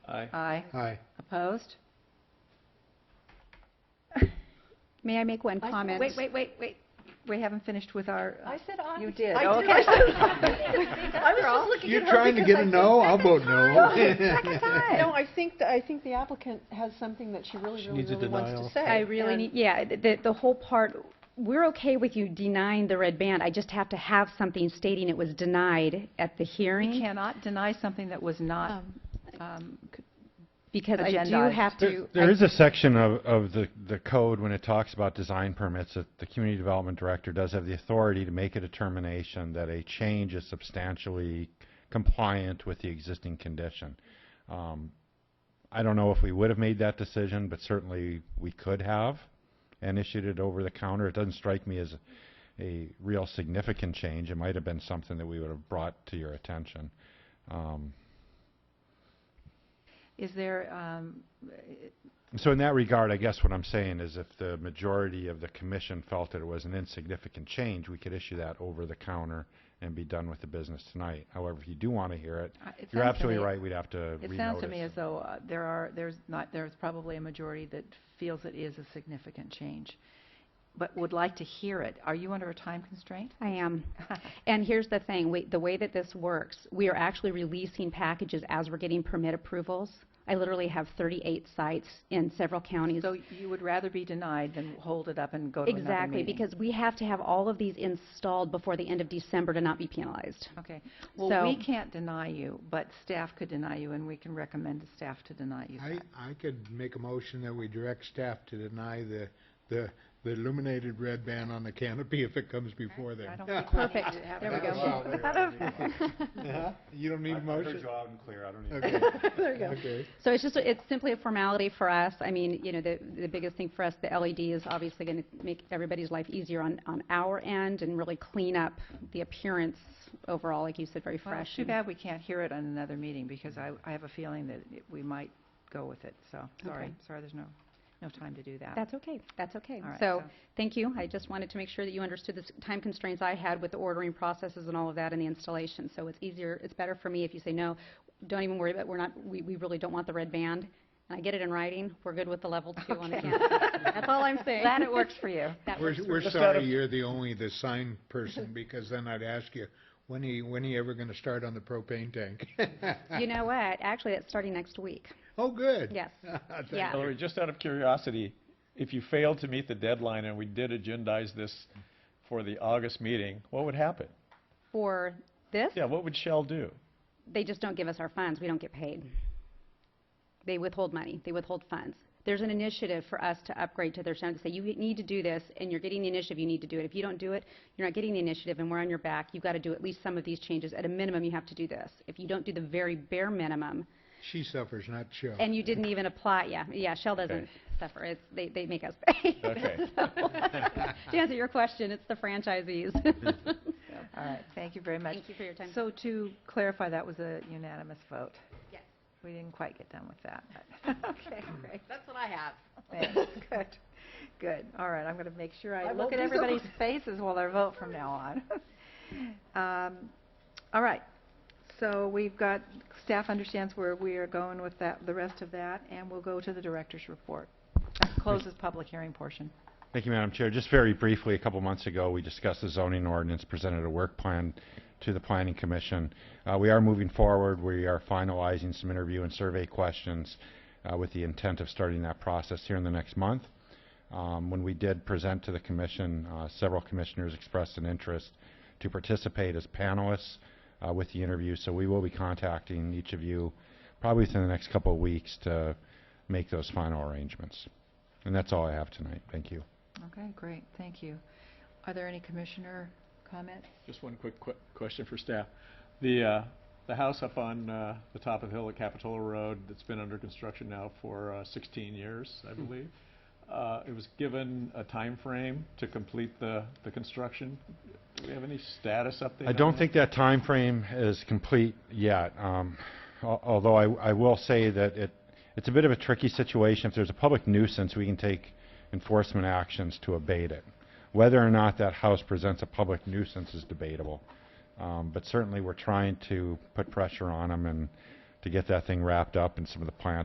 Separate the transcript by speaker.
Speaker 1: Aye.
Speaker 2: Aye.
Speaker 3: Aye.
Speaker 2: Opposed?
Speaker 4: May I make one
Speaker 5: I-
Speaker 4: comment?
Speaker 2: Wait, wait, wait, wait. We haven't finished with our, uh,
Speaker 5: I said aye.
Speaker 2: you did.
Speaker 5: I
Speaker 2: Okay.
Speaker 5: did. I was just looking
Speaker 3: You're
Speaker 5: at her
Speaker 3: trying to
Speaker 5: because
Speaker 3: get a
Speaker 5: I
Speaker 3: no,
Speaker 5: think-
Speaker 3: I'll vote
Speaker 4: Oh,
Speaker 3: no.
Speaker 2: Second
Speaker 5: No,
Speaker 2: time.
Speaker 5: I think, that- I think the applicant has something that she really,
Speaker 3: She
Speaker 5: really,
Speaker 3: needs a
Speaker 5: really wants to
Speaker 3: denial.
Speaker 5: say.
Speaker 4: I really
Speaker 5: and-
Speaker 4: need, yeah, th- the, the whole part, we're okay with you denying the red band. I just have to have something stating it was denied at the
Speaker 2: uh, We
Speaker 4: hearing.
Speaker 2: cannot deny something that was not, um, c-
Speaker 4: Oh. Because I do
Speaker 2: agendized.
Speaker 4: have
Speaker 6: There
Speaker 4: to.
Speaker 6: there
Speaker 4: I-
Speaker 6: is a section of, of the, the code when it talks about design permits, that the community development director does have the authority to make a determination that a change is substantially compliant with the existing condition. Um, I don't know if we would have made that decision, but certainly we could have and issued it over the counter. It doesn't strike me as a real significant change. It might have been something that we would have brought to your attention. Um,
Speaker 2: is there, um,
Speaker 6: So in that regard, I guess what I'm saying is if the majority of the commission felt that it was an insignificant change, we could issue that over the counter and be done with the business tonight. However, if you do want to hear it,
Speaker 2: I- it
Speaker 6: you're
Speaker 2: sounds to
Speaker 6: absolutely
Speaker 2: me-
Speaker 6: right, we'd have to
Speaker 2: It sounds to me
Speaker 6: renotice.
Speaker 2: as though uh, there are, there's not, there's probably a majority that feels it is a significant change, but would like to hear it. Are you under a time constraint?
Speaker 4: I am. And here's the thing, we- the way that this works, we are actually releasing packages as we're getting permit approvals. I literally have 38 sites in several counties.
Speaker 2: So you would rather be denied than hold it up and go to another meeting?
Speaker 4: Exactly, because we have to have all of these installed before the end of December to not be penalized.
Speaker 2: Okay. Well, we
Speaker 4: So-
Speaker 2: can't deny you, but staff could deny you, and we can recommend to staff to deny you
Speaker 3: I,
Speaker 2: that.
Speaker 3: I could make a motion that we direct staff to deny the, the, the illuminated red band on the canopy if it comes before
Speaker 2: I
Speaker 3: then.
Speaker 2: don't think we need
Speaker 4: Perfect.
Speaker 2: to have
Speaker 4: There we
Speaker 2: that.
Speaker 4: go.
Speaker 3: Uh-huh. You don't need a motion?
Speaker 6: loud and clear, I don't
Speaker 3: Okay.
Speaker 5: There you go.
Speaker 3: Okay.
Speaker 4: So it's just, a- it's simply a formality for us. I mean, you know, the, the biggest thing for us, the LED is obviously going to make everybody's life easier on, on our end and really clean up the appearance overall, like you said, very
Speaker 2: Well, it's
Speaker 4: fresh.
Speaker 2: too
Speaker 4: and-
Speaker 2: bad we can't hear it on another meeting, because I, I have a feeling that it- we might go with it, so, sorry,
Speaker 4: Okay.
Speaker 2: sorry, there's no, no time to do that.
Speaker 4: That's okay, that's okay.
Speaker 2: All right,
Speaker 4: So, thank you. I just wanted to make sure that you understood the s- time constraints I had with the ordering processes and all of that and the installation. So it's easier, it's better for me if you say, no, don't even worry about, we're not, we, we really don't want the red band. And I get it in writing, we're good with the level two on the campus. That's all I'm saying.
Speaker 2: Glad it works for you.
Speaker 4: That
Speaker 3: We're,
Speaker 4: works for
Speaker 3: we're
Speaker 1: Just out
Speaker 3: sorry
Speaker 1: of-
Speaker 3: you're the only, the sign person, because then I'd ask you, when are you, when are you ever gonna start on the propane tank?
Speaker 4: You know what? Actually, it's starting next week.
Speaker 3: Oh, good.
Speaker 4: Yes.
Speaker 3: Thank
Speaker 4: Yeah.
Speaker 1: Hillary, just out of curiosity, if you failed to meet the deadline and we did agendize this for the August meeting, what would happen?
Speaker 4: For this,
Speaker 1: Yeah, what would Shell do?
Speaker 4: they just don't give us our funds. We don't get paid. They withhold money. They withhold funds. There's an initiative for us to upgrade to their sound to say, you need to do this, and you're getting the initiative, you need to do it. If you don't do it, you're not getting the initiative, and we're on your back. You've got to do at least some of these changes. At a minimum, you have to do this. If you don't do the very bare minimum,
Speaker 3: She suffers, not Joe.
Speaker 4: and you didn't even apply, yeah, yeah, Shell doesn't
Speaker 1: Okay.
Speaker 4: suffer. It's, they, they make us pay.
Speaker 1: Okay.
Speaker 4: So, To answer your question, it's the franchisees.
Speaker 2: All right, thank you very much.
Speaker 4: Thank you for your time.
Speaker 2: So to clarify, that was a unanimous vote?
Speaker 4: Yes.
Speaker 2: We didn't quite get done with that, but, okay, great.
Speaker 5: That's what I have.
Speaker 2: Thanks. Good, good. All right, I'm going to make sure I
Speaker 5: I
Speaker 2: look
Speaker 5: will
Speaker 2: at
Speaker 5: do so.
Speaker 2: everybody's faces while I vote from now on. Um, All right, so we've got, staff understands where we are going with that, the rest of that, and we'll go to the director's report. That closes public hearing portion.
Speaker 6: Thank you, Madam Chair. Just very briefly, a couple months ago, we discussed the zoning ordinance, presented a work plan to the Planning Commission. Uh, We are moving forward. We are finalizing some interview and survey questions uh, with the intent of starting that process here in the next month. Um, When we did present to the commission, uh, several commissioners expressed an interest to participate as panelists uh, with the interview, so we will be contacting each of you probably within the next couple of weeks to make those final arrangements. And that's all I have tonight. Thank you.
Speaker 2: Okay, great, thank you. Are there any commissioner comments?
Speaker 1: Just one quick que- question for staff. The, uh, the house up on uh, the top of the hill at Capitola Road that's been under construction now for uh, 16 years,
Speaker 6: Hmm.
Speaker 1: I believe. Uh, It was given a time frame to complete the, the construction. Do we have any status update?
Speaker 6: I
Speaker 1: on
Speaker 6: don't
Speaker 1: that?
Speaker 6: think that time frame is complete yet, um, al- although I, I will say that it, it's a bit of a tricky situation. If there's a public nuisance, we can take enforcement actions to abate it. Whether or not that house presents a public nuisance is debatable, um, but certainly we're trying to put pressure on them and to get that thing wrapped up and some of the plans